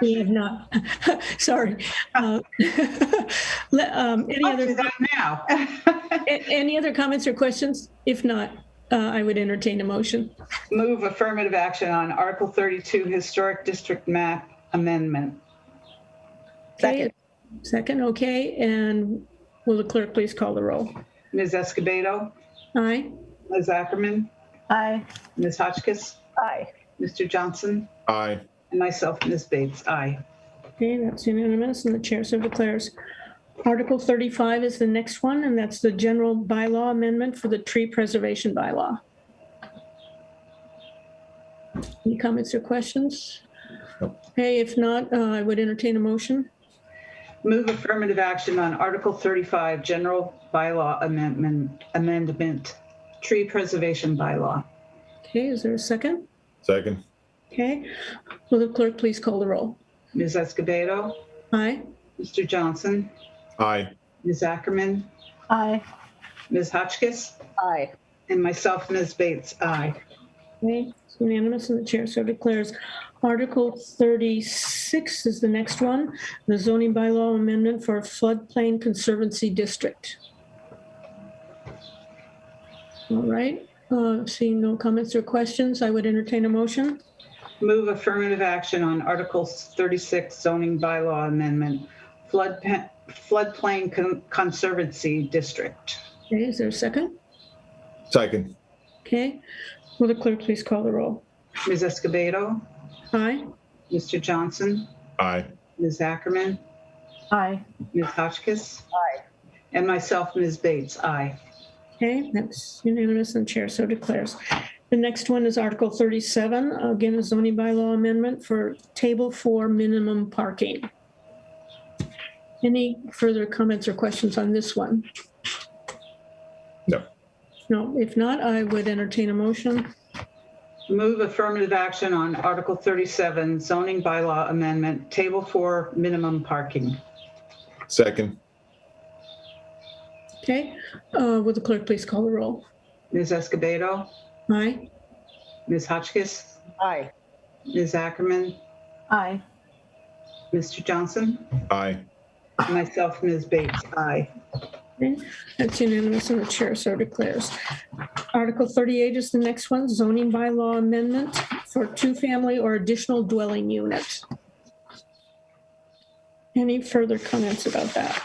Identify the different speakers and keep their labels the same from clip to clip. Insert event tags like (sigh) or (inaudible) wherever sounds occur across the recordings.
Speaker 1: We have not. (laughs) Sorry. Uh, (laughs) le- um, Any
Speaker 2: Ah. I'll
Speaker 1: other,
Speaker 2: do that now.
Speaker 1: (laughs) a- any other comments or questions? If not, uh, I would entertain a motion.
Speaker 2: Move affirmative action on Article 32 Historic District Map Amendment.
Speaker 1: Okay, Second, okay, and will the clerk please call the roll?
Speaker 2: Ms. Escobedo,
Speaker 1: Aye?
Speaker 2: Ms. Ackerman,
Speaker 3: Aye.
Speaker 2: Ms. Hotchkiss,
Speaker 3: Aye.
Speaker 2: Mr. Johnson,
Speaker 4: Aye.
Speaker 2: and myself, Ms. Bates. Aye.
Speaker 1: Okay, that's unanimous, and the chair so declares. Article 35 is the next one, and that's the general bylaw amendment for the tree preservation bylaw. Any comments or questions?
Speaker 4: Nope.
Speaker 1: Okay, if not, uh, I would entertain a motion.
Speaker 2: Move affirmative action on Article 35 General Bylaw Amendment, Amendment, Tree Preservation Bylaw.
Speaker 1: Okay, is there a second?
Speaker 4: Second.
Speaker 1: Okay, will the clerk please call the roll?
Speaker 2: Ms. Escobedo,
Speaker 1: Aye?
Speaker 2: Mr. Johnson,
Speaker 4: Aye.
Speaker 2: Ms. Ackerman,
Speaker 3: Aye.
Speaker 2: Ms. Hotchkiss,
Speaker 3: Aye.
Speaker 2: and myself, Ms. Bates. Aye.
Speaker 1: Okay, it's unanimous, and the chair so declares. Article 36 is the next one, the zoning bylaw amendment for floodplain conservancy district. All right, uh, seeing no comments or questions, I would entertain a motion.
Speaker 2: Move affirmative action on Article 36 zoning bylaw amendment, flood pa- floodplain con- conservancy district.
Speaker 1: Okay, is there a second?
Speaker 4: Second.
Speaker 1: Okay, will the clerk please call the roll?
Speaker 2: Ms. Escobedo,
Speaker 1: Aye?
Speaker 2: Mr. Johnson,
Speaker 4: Aye.
Speaker 2: Ms. Ackerman,
Speaker 3: Aye.
Speaker 2: Ms. Hotchkiss,
Speaker 3: Aye.
Speaker 2: and myself, Ms. Bates. Aye.
Speaker 1: Okay, that's unanimous and chair so declares. The next one is Article 37, again, a zoning bylaw amendment for Table 4 minimum parking. Any further comments or questions on this one?
Speaker 4: No.
Speaker 1: No, if not, I would entertain a motion.
Speaker 2: Move affirmative action on Article 37 zoning bylaw amendment, table four, minimum parking.
Speaker 4: Second.
Speaker 1: Okay, uh, will the clerk please call the roll?
Speaker 2: Ms. Escobedo,
Speaker 1: Aye?
Speaker 2: Ms. Hotchkiss,
Speaker 3: Aye.
Speaker 2: Ms. Ackerman,
Speaker 3: Aye.
Speaker 2: Mr. Johnson,
Speaker 4: Aye.
Speaker 2: and myself, Ms. Bates. Aye.
Speaker 1: Okay, That's unanimous and the chair so declares. Article 38 is the next one, zoning bylaw amendment for two-family or additional dwelling unit. Any further comments about that?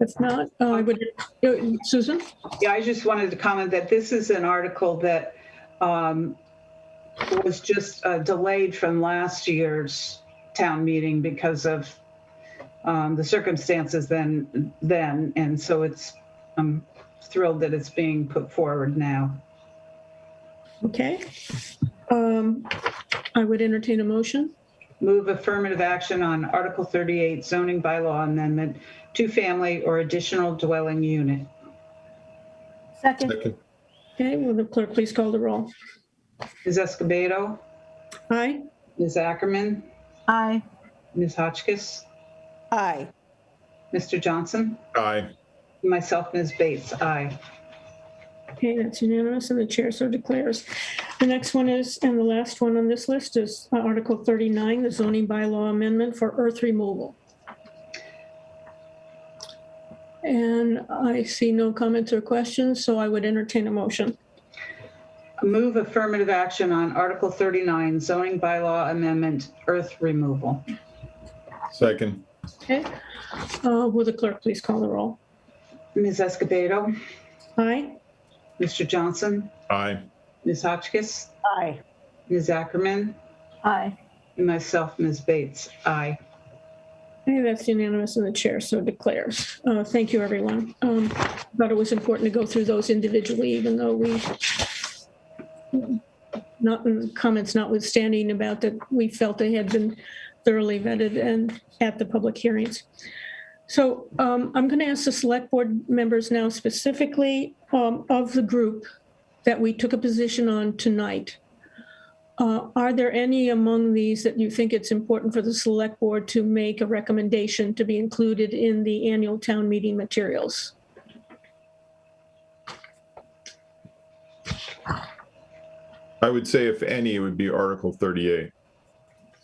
Speaker 1: If not, uh, I would, uh, Susan?
Speaker 2: Yeah, I just wanted to comment that this is an article that um, was just uh, delayed from last year's town meeting because of um, the circumstances then, then, and so it's, I'm thrilled that it's being put forward now.
Speaker 1: Okay. Um, I would entertain a motion.
Speaker 2: Move affirmative action on Article 38 zoning bylaw amendment, two-family or additional dwelling unit.
Speaker 3: Second.
Speaker 4: Second.
Speaker 1: Okay, will the clerk please call the roll?
Speaker 2: Ms. Escobedo,
Speaker 1: Aye?
Speaker 2: Ms. Ackerman,
Speaker 3: Aye.
Speaker 2: Ms. Hotchkiss,
Speaker 3: Aye.
Speaker 2: Mr. Johnson,
Speaker 4: Aye.
Speaker 2: myself, Ms. Bates. Aye.
Speaker 1: Okay, that's unanimous, and the chair so declares. The next one is, and the last one on this list is uh, Article 39, the zoning bylaw amendment for earth removal. And I see no comments or questions, so I would entertain a motion.
Speaker 2: Move affirmative action on Article 39 zoning bylaw amendment, earth removal.
Speaker 4: Second.
Speaker 1: Okay? Uh, Will the clerk please call the roll?
Speaker 2: Ms. Escobedo,
Speaker 1: Aye?
Speaker 2: Mr. Johnson,
Speaker 4: Aye.
Speaker 2: Ms. Hotchkiss,
Speaker 3: Aye.
Speaker 2: Ms. Ackerman,
Speaker 3: Aye.
Speaker 2: and myself, Ms. Bates. Aye.
Speaker 1: Okay, that's unanimous, and the chair so declares. Uh, Thank you, everyone. Um, Thought it was important to go through those individually, even though we, not, comments notwithstanding about that we felt they had been thoroughly vetted and at the public hearings. So um, I'm going to ask the select board members now specifically um, of the group that we took a position on tonight. Uh, Are there any among these that you think it's important for the select board to make a recommendation to be included in the annual town meeting materials?
Speaker 4: I would say if any, it would be Article 38.